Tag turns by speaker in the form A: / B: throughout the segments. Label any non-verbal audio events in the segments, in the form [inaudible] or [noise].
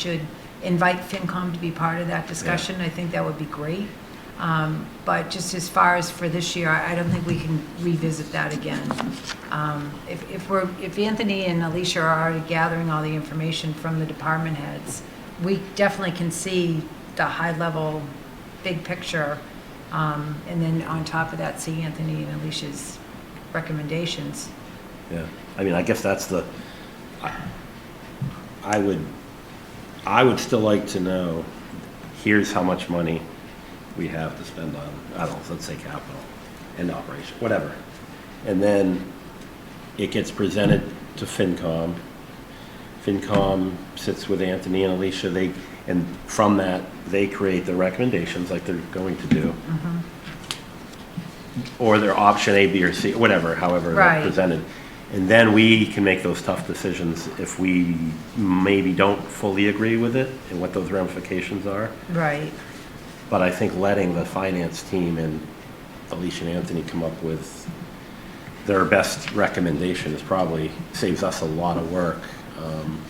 A: should invite FinCom to be part of that discussion. I think that would be great. Um, But just as far as for this year, I I don't think we can revisit that again. Um, If if we're, if Anthony and Alicia are already gathering all the information from the department heads, we definitely can see the high-level, big picture, um, and then on top of that, see Anthony and Alicia's recommendations.
B: Yeah, I mean, I guess that's the, I, I would, I would still like to know, here's how much money we have to spend on, I don't know, let's say capital and operation, whatever. And then it gets presented to FinCom. FinCom sits with Anthony and Alicia, they, and from that, they create their recommendations like they're going to do. Or their option A, B, or C, whatever, however
A: Right.
B: they're presented. And then we can make those tough decisions if we maybe don't fully agree with it and what those ramifications are.
A: Right.
B: But I think letting the finance team and Alicia and Anthony come up with their best recommendation is probably, saves us a lot of work. Um,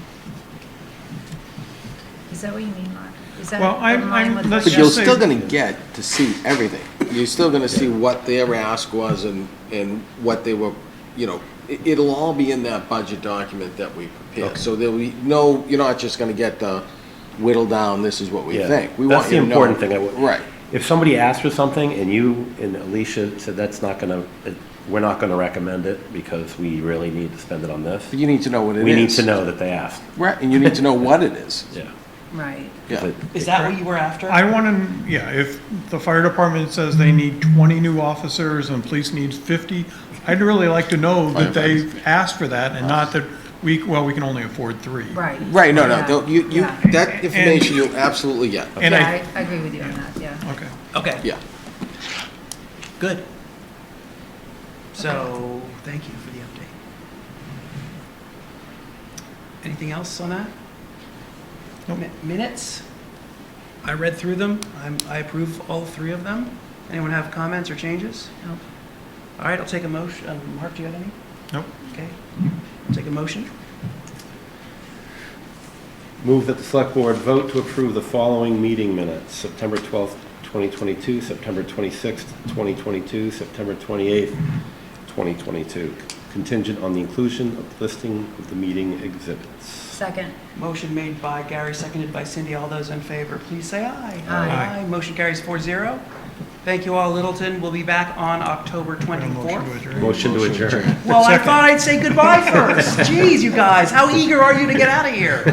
A: Is that what you mean, Mark? Is that
C: Well, I'm-
A: in line
C: I'm-
A: with what
C: let's just
D: But you're
C: say-
D: still gonna get to see everything. You're still gonna see what their ask was and, and what they were, you know, it, it'll all be in that budget document that we prepared. So there'll be no, you're not just gonna get the whittle down, this is what we
B: Yeah.
D: think. We
B: That's
D: want
B: the
D: you to know-
B: important thing I would-
D: Right.
B: If somebody asks for something and you and Alicia said, that's not gonna, it- we're not gonna recommend it because we really need to spend it on this,
D: But you need to know what it is.
B: we need to know that they asked.
D: Right, and you need to know what
B: [laughs]
D: it is.
B: Yeah.
A: Right.
D: Yeah.
E: Is that what you were after?
C: I want to, yeah, if the fire department says they need 20 new officers and police needs 50, I'd really like to know that they asked for that and not that we, well, we can only afford three.
A: Right.
D: Right, no, no,
A: Yeah.
D: don't- you, you,
A: Yeah,
D: that information you'll absolutely get.
C: And I-
A: Yeah, I I agree with you on that, yeah.
C: Okay.
E: Okay,
D: Yeah.
E: good. So, thank you for the update. Anything else on that?
C: Nope.
E: Mi- Minutes? I read through them. I'm- I approve all three of them. Anyone have comments or changes?
A: Nope.
E: All right, I'll take a motion. Um, Mark, do you have any?
C: Nope.
E: Okay. I'll Take a motion.
B: Move that the select board vote to approve the following meeting minutes, September 12th, 2022, September 26th, 2022, September 28th, 2022, contingent on the inclusion of listing of the meeting exhibits.
A: Second,
E: Motion made by Gary, seconded by Cindy. All those in favor, please say aye.
A: Aye.
E: Motion carries 4-0. Thank you all, Littleton. We'll be back on October
C: Got a motion to
E: 24th.
C: adjourn.
B: Motion to adjourn.
E: Well, I
C: Second.
E: thought I'd say goodbye first. Jeez, you guys, how eager are you to get out of here?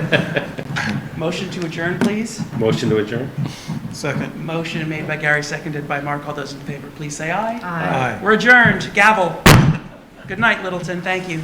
E: Motion to adjourn, please.
B: Motion to adjourn?
C: Second.
E: Motion made by Gary, seconded by Mark. All those in favor, please say aye.
A: aye.
C: Aye.
E: We're adjourned. Gavel. Good night, Littleton. Thank you.